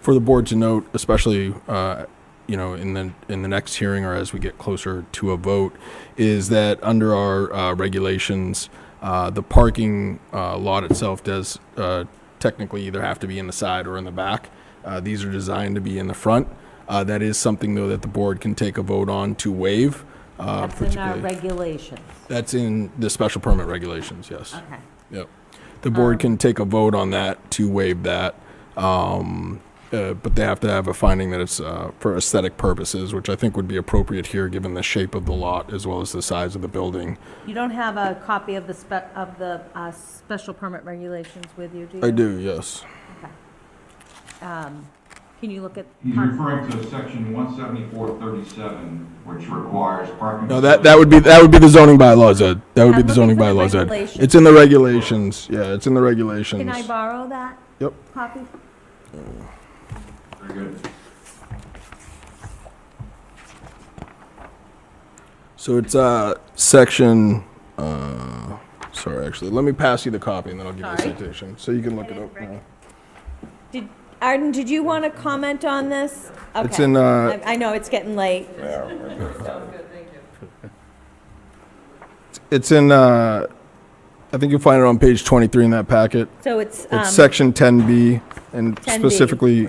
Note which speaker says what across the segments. Speaker 1: for the board to note, especially, uh, you know, in the, in the next hearing or as we get closer to a vote, is that under our uh, regulations, uh, the parking uh, lot itself does uh, technically either have to be in the side or in the back. Uh, These are designed to be in the front. Uh, That is something, though, that the board can take a vote on to waive. uh,
Speaker 2: That's in our
Speaker 1: particularly-
Speaker 2: regulations.
Speaker 1: That's in the special permit regulations, yes.
Speaker 2: Okay.
Speaker 1: Yep. The board
Speaker 2: Um,
Speaker 1: can take a vote on that to waive that. Um, uh, but they have to have a finding that it's, uh, for aesthetic purposes, which I think would be appropriate here, given the shape of the lot as well as the size of the building.
Speaker 2: You don't have a copy of the spe, of the, uh, special permit regulations with you, do you?
Speaker 1: I do, yes.
Speaker 2: Um, can you look at?
Speaker 3: He's
Speaker 2: part-
Speaker 3: referring to section one seventy-four thirty-seven, which requires parking.
Speaker 1: No, that, that would be, that would be the zoning bylaws, Ed. That would be
Speaker 2: I'm
Speaker 1: the zoning
Speaker 2: looking for the
Speaker 1: bylaws, Ed.
Speaker 2: regulations.
Speaker 1: It's in the regulations. Yeah, it's in the regulations.
Speaker 2: Can I borrow that
Speaker 1: Yep.
Speaker 2: copy?
Speaker 3: Very good.
Speaker 1: So it's, uh, section, uh, sorry, actually, let me pass you the copy and then I'll give you the
Speaker 2: Sorry.
Speaker 1: citation, so you can look
Speaker 2: I
Speaker 1: it
Speaker 2: didn't
Speaker 1: up
Speaker 2: bring
Speaker 1: now.
Speaker 2: it. Did, Arden, did you want to comment on this?
Speaker 1: It's
Speaker 2: Okay.
Speaker 1: in, uh,
Speaker 2: I I know, it's getting late.
Speaker 1: It's in, uh, I think you'll find it on page 23 in that packet.
Speaker 2: So it's, um,
Speaker 1: It's section 10B and
Speaker 2: 10B.
Speaker 1: specifically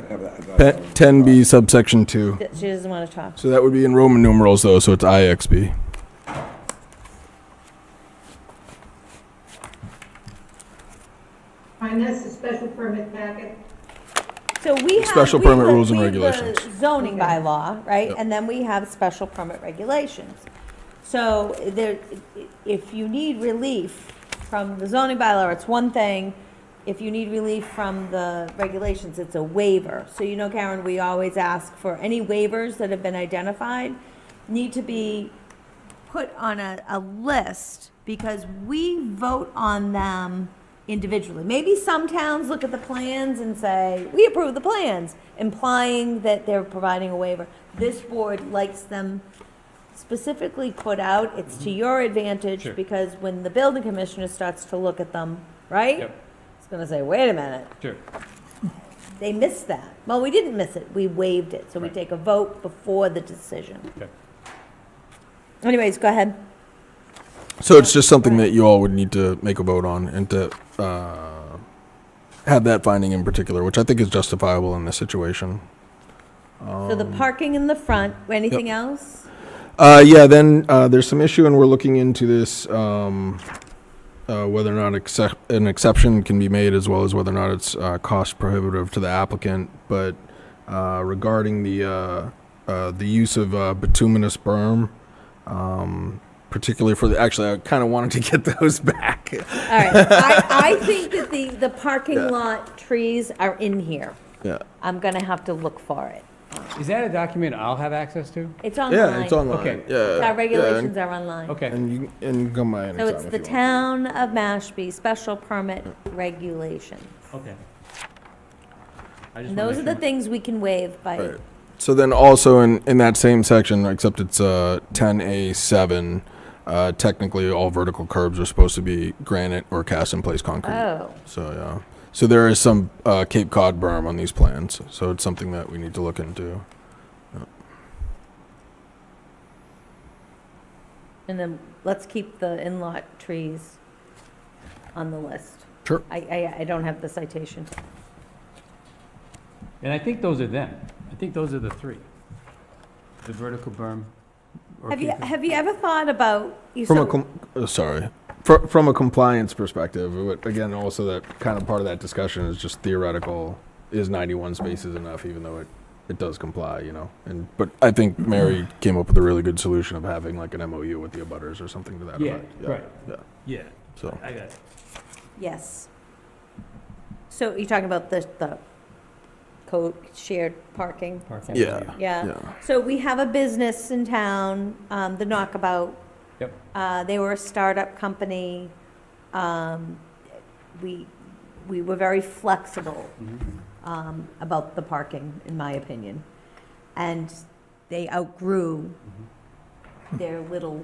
Speaker 1: pe- 10B subsection 2.
Speaker 2: that she doesn't want to talk.
Speaker 1: So that would be in Roman numerals though, so it's IXB.
Speaker 4: Find this, a special permit packet.
Speaker 2: So we have.
Speaker 1: Special
Speaker 2: we
Speaker 1: permit
Speaker 2: have-
Speaker 1: rules and
Speaker 2: we have the
Speaker 1: regulations.
Speaker 2: Zoning bylaw, right?
Speaker 1: Yep.
Speaker 2: And then we have special permit regulations. So there, if you need relief from the zoning bylaw, it's one thing. If you need relief from the regulations, it's a waiver. So you know, Karen, we always ask for any waivers that have been identified need to be put on a, a list because we vote on them individually. Maybe some towns look at the plans and say, we approve the plans, implying that they're providing a waiver. This board likes them specifically put out. It's
Speaker 5: Mm-hmm.
Speaker 2: to your advantage because when the building commissioner starts to look at them, right?
Speaker 5: Yep.
Speaker 2: It's gonna say, wait a minute,
Speaker 5: Sure.
Speaker 2: they missed that. Well, we didn't miss it, we waived it, so we
Speaker 5: Right.
Speaker 2: take a vote before the decision.
Speaker 5: Okay.
Speaker 2: Anyways, go ahead.
Speaker 1: So it's just something that you all would need to make a vote on and to uh, have that finding in particular, which I think is justifiable in this situation.
Speaker 2: So
Speaker 1: Um,
Speaker 2: the parking in the front, anything else?
Speaker 1: Uh, yeah, then uh, there's some issue, and we're looking into this um, uh, whether or not accept, an exception can be made, as well as whether or not it's uh, cost prohibitive to the applicant. But uh, regarding the uh, uh, the use of uh, bituminous berm. Um, particularly for the actually i kind of wanted to get those back
Speaker 2: All right, I, I think that the, the parking lot trees are in here.
Speaker 1: yeah
Speaker 2: I'm gonna have to look for it.
Speaker 5: Is that a document I'll have access to?
Speaker 2: It's online.
Speaker 1: yeah it's online
Speaker 5: Okay.
Speaker 1: yeah
Speaker 2: Our
Speaker 1: yeah,
Speaker 2: regulations are online.
Speaker 5: Okay,
Speaker 1: and, and you and you can come by
Speaker 2: So
Speaker 1: anytime
Speaker 2: it's
Speaker 1: if
Speaker 2: the
Speaker 1: you want.
Speaker 2: town of Mashpee special permit regulation.
Speaker 5: okay. I
Speaker 2: And
Speaker 5: just wanna
Speaker 2: those are
Speaker 5: make
Speaker 2: the
Speaker 5: sure.
Speaker 2: things we can waive by,
Speaker 1: Right. So then also in, in that same section, except it's uh, 10A7, uh, technically all vertical curbs are supposed to be granite or cast in place concrete.
Speaker 2: oh.
Speaker 1: So, yeah. So there is some uh, Cape Cod berm on these plans. So it's something that we need to look into.
Speaker 2: And then let's keep the in-lot trees on the list.
Speaker 1: Sure.
Speaker 2: I, I, I don't have the citation.
Speaker 5: And I think those are them. I think those are the three. The vertical berm. or
Speaker 2: Have you,
Speaker 5: keep it-
Speaker 2: have you ever thought about? you
Speaker 1: From a,
Speaker 2: said-
Speaker 1: com- uh, sorry. Fr- from a compliance perspective, but again, also that kind of part of that discussion is just theoretical. Is 91 spaces enough, even though it, it does comply, you know? And But I think Mary came up with a really good solution of having like an MOU with the abutters or something to that
Speaker 5: Yeah,
Speaker 1: effect.
Speaker 5: right.
Speaker 1: Yeah.
Speaker 5: Yeah,
Speaker 1: So,
Speaker 5: I got it.
Speaker 2: Yes. So you're talking about the, the code shared parking?
Speaker 5: Parking.
Speaker 1: yeah.
Speaker 2: Yeah.
Speaker 1: Yeah.
Speaker 2: So we have a business in town, um, the Knockabout.
Speaker 5: Yep.
Speaker 2: Uh, they were a startup company. Um, we, we were very flexible, um, about the parking, in my opinion. And they outgrew their little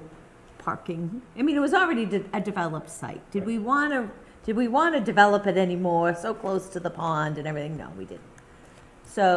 Speaker 2: parking. I mean, it was already de- a developed site. Did we want to, did we want to develop it anymore, so close to the pond and everything? No, we didn't. So